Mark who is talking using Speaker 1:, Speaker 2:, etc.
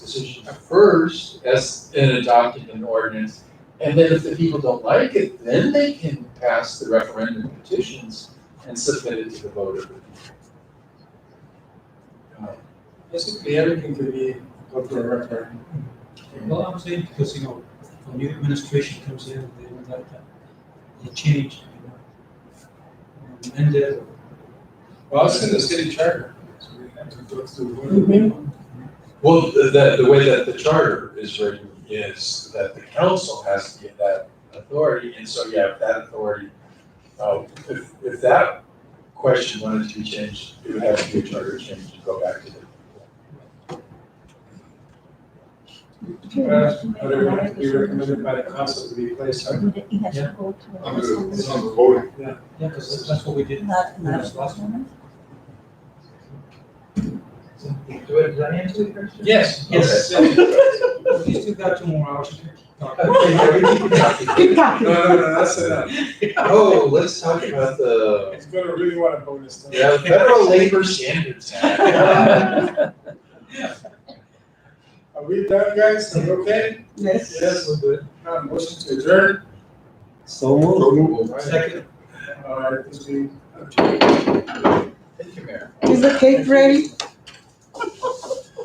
Speaker 1: decision first as in adopting an ordinance. And then if the people don't like it, then they can pass the referendum petitions and submit it to the vote of the people. Uh,
Speaker 2: Basically, everything could be go to a referendum.
Speaker 3: Well, I'm saying because, you know, when new administration comes in, they would like that, they change, you know. And uh, then,
Speaker 2: Well, it's in the city charter, so we have to go through.
Speaker 1: Well, the, the way that the charter is written is that the council has to get that authority, and so, yeah, if that authority, uh, if, if that question wanted to be changed, it would have to be a charter change to go back to the.
Speaker 2: Uh, But it would be recommended by the council to be placed on.
Speaker 4: He has to go to. a-
Speaker 5: It's on the voting.
Speaker 3: yeah, because that's what we did.
Speaker 4: Not, not.
Speaker 3: Last one.
Speaker 2: Do it,
Speaker 3: Did I answer your question?
Speaker 2: Yes, yes.
Speaker 3: We still got two more hours to talk.
Speaker 2: No, no, no, that's enough.
Speaker 1: Oh, let's talk about the,
Speaker 2: It's gonna really want a bonus. time.
Speaker 1: yeah, Federal Labor Standards Act.
Speaker 2: Are we done, guys? Are we okay?
Speaker 4: Yes.
Speaker 2: we're good. Uh, motion to adjourn.
Speaker 3: So moved.
Speaker 5: So moved.
Speaker 3: Second.
Speaker 2: All right, this being.
Speaker 1: Thank you, Mayor.
Speaker 4: Is the cake ready?